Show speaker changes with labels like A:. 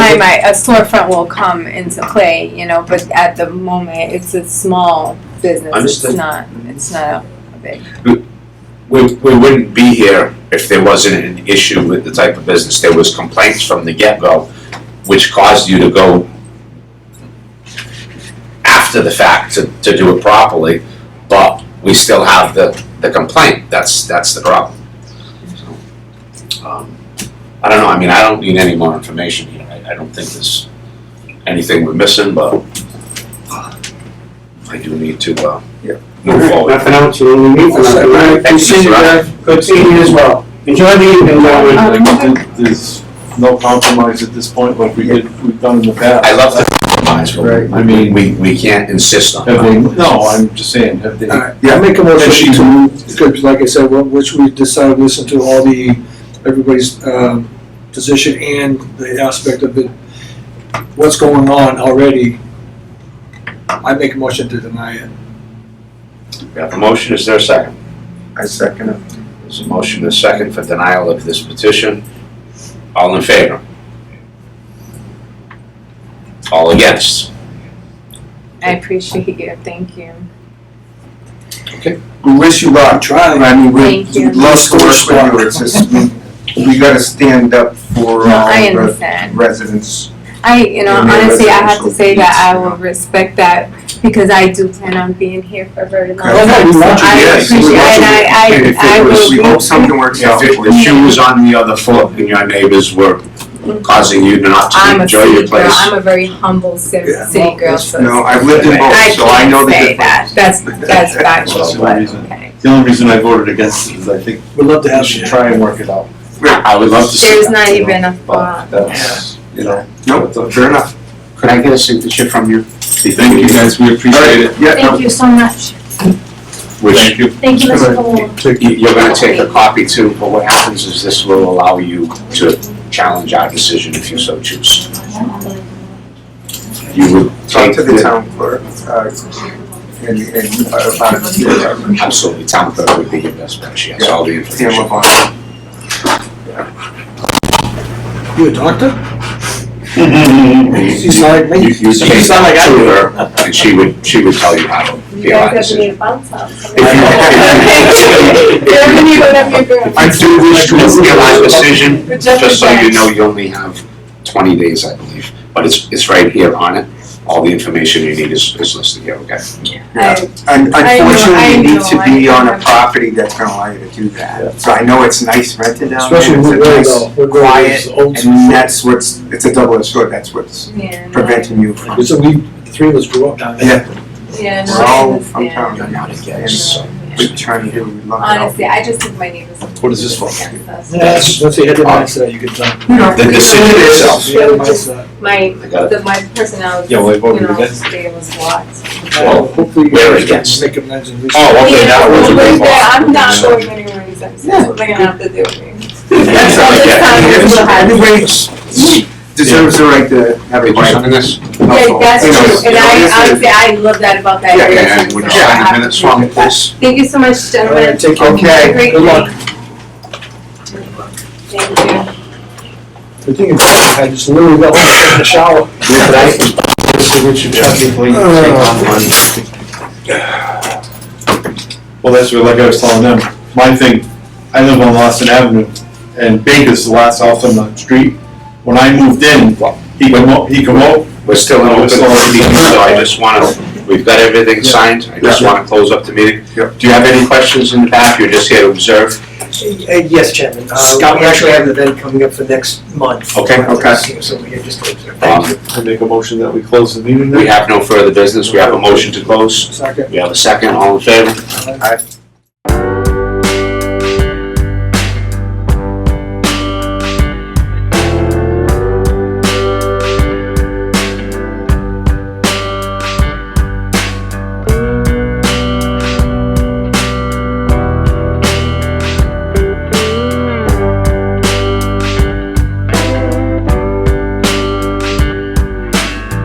A: might, a storefront will come into play, you know, but at the moment, it's a small business.
B: Understood.
A: It's not, it's not a big.
B: We, we wouldn't be here if there wasn't an issue with the type of business. There was complaints from the get-go, which caused you to go after the fact to, to do it properly, but we still have the, the complaint. That's, that's the problem. So, um, I don't know, I mean, I don't need any more information here. I, I don't think there's anything we're missing, but uh, I do need to, uh,
C: Yeah.
B: move forward.
C: Nothing else, you only need for nothing, right?
B: Thank you,
C: Good seeing you,
B: sir.
C: guys. good seeing you as well. Enjoy the evening,
D: I
C: gentlemen.
A: Uh,
D: would like to- There's no compromise at this point like we did, we've done in the past.
B: I love the compromise, but
D: Right.
B: I mean, we, we can't insist on
D: Have they,
B: it.
D: no, I'm just saying, have they,
E: Alright, Yeah, make a motion to, because like I said, wh- which we decided, to listen to all the, everybody's um, position and the aspect of it, what's going on already. I make a motion to deny it.
B: We have a motion, is there a second?
C: I second it.
B: There's a motion and a second for denial of this petition. All in favor? All against?
A: I appreciate you, thank you.
C: We wish you luck.
E: Try.
C: I mean, we
A: Thank you.
C: love scores for you, it's just, we, we gotta stand up for
A: No, I
C: all the
A: understand.
C: residents.
A: I, you know,
C: And your
A: honestly, I have to
C: residential
A: say that I
C: needs.
A: will respect that because I do plan on being here for a very long
C: Okay.
A: time.
C: We
A: So
C: want you,
A: I
C: yes, we
A: appreciate,
C: want
A: and
C: you. And
A: I,
C: if
A: I, I
C: it was-
A: will
C: We hope
A: be,
C: something works out
B: If it
C: for
B: was
C: you.
B: you was on the other foot and your neighbors were causing you to not
A: I'm
B: to
A: a
B: enjoy
A: city
B: your
A: girl,
B: place.
A: I'm a very humble city,
E: Yeah.
A: city girl, so.
C: No, I've lived in both,
A: I
C: so I know
A: can't
C: the
A: say
C: difference.
A: that, that's, that's factual,
D: That's the
A: but,
D: reason.
A: okay.
D: the only reason I voted against it is I think
E: We'd love to
D: we
E: have
D: should
E: you.
D: try and work it out.
B: I would love to see
A: There's
B: that,
A: not
B: you know,
A: even a thought.
D: But that's, you know.
C: Nope, fair enough.
B: but Could I get a signature from you?
D: Thank you guys, we appreciate it.
C: Yeah, no,
F: Thank you so much.
B: Which
D: you.
F: Thank you, Mr. Colon.
B: You- You're gonna take a copy too, but what happens is this will allow you to challenge our decision if you so choose. You would
C: talk
B: take
C: to the
B: the,
C: town clerk, uh, and, and about it,
B: absolutely, town clerk would be your best bet, she has all the
C: Sam
B: information.
C: Levon.
E: You a doctor? She's
B: You-
E: like
B: You,
E: me.
B: you take that to her, and she would, she would tell you how to
F: You
B: be our
F: guys have to
B: decision.
F: need a bounce house.
B: If you- if you- I do wish to appeal our decision, just so you know, you only have twenty days, I believe, but it's, it's right here on it. All the information you need is, is listed here, okay?
A: I-
C: Un-
A: I know, I
C: Unfortunately, you need to
A: know,
C: be
A: I
C: on a
A: know.
C: property that's gonna allow you to do that. So I know it's nice rented down there,
E: Especially
C: it's a
E: with Ray
C: nice-
E: though. We're going
C: quiet,
E: old
C: and
E: school.
C: that's what's, it's a double-edged sword, that's what's
A: Yeah, no,
C: preventing you from,
E: So we, three of us grew up down there.
A: yeah, no,
C: we're
A: I
C: all from
A: understand.
C: town,
B: You're
C: and
B: not against, so.
C: we're trying to do, we love it all.
A: Honestly, I just think my neighbors.
D: What is this for?
E: Yeah, once they had the mindset, you could tell.
B: The decision itself.
E: They had the mindset.
A: My,
B: I got it.
A: the, my personality,
D: Yeah,
A: you
D: well, I
A: know,
D: voted against.
A: today was locked.
B: Well,
E: Hopefully, you
B: we're
E: guys can
B: against.
E: make amends and reach.
B: Oh, okay, now we're
A: Yeah,
B: doing
A: but
B: law.
A: I'm not
B: So-
A: going anywhere, except
C: Yeah.
A: they're gonna have to deal with me.
B: That's how I get it.
C: Everybody deserves the right to have a
B: Did you
C: right.
B: sign
A: Yeah,
B: this?
A: that's
C: You know,
A: true, and
C: you know,
A: I,
C: this is-
A: honestly, I love that about that
C: Yeah,
A: area.
B: Yeah, and
A: too,
B: would you
A: so I
B: sign the
A: have to
B: minutes
A: do
B: for me,
A: that.
B: please?
A: Thank you so much,
E: All
A: gentlemen.
E: right, take care.
C: Okay.
A: Have a great
E: Good luck.
A: day. Thank you.
E: The thing is, I just literally got home and took a shower.
D: Well, that's what, like I was telling them, my thing, I live on Lawson Avenue, and Baker's the last house on the street. When I moved in, he come up, he come up,
B: We're still in
D: We're
B: open
D: still in open
B: meeting, so I just wanna, we've got everything signed, I just wanna close up the meeting.
C: Yeah.
B: Do you have any questions in the back, you're just here to observe?
G: Uh, Yes, Chairman. Uh,
B: Scott.
G: We actually have an event coming up for next month.
B: Okay,
C: okay.
G: So we are just, thank
B: Um,
G: you.
D: I make a motion that we close the meeting then.
B: Uh, We have no further business, we have a motion to close,
E: Second.
B: we have a second, all in favor?
C: Aye.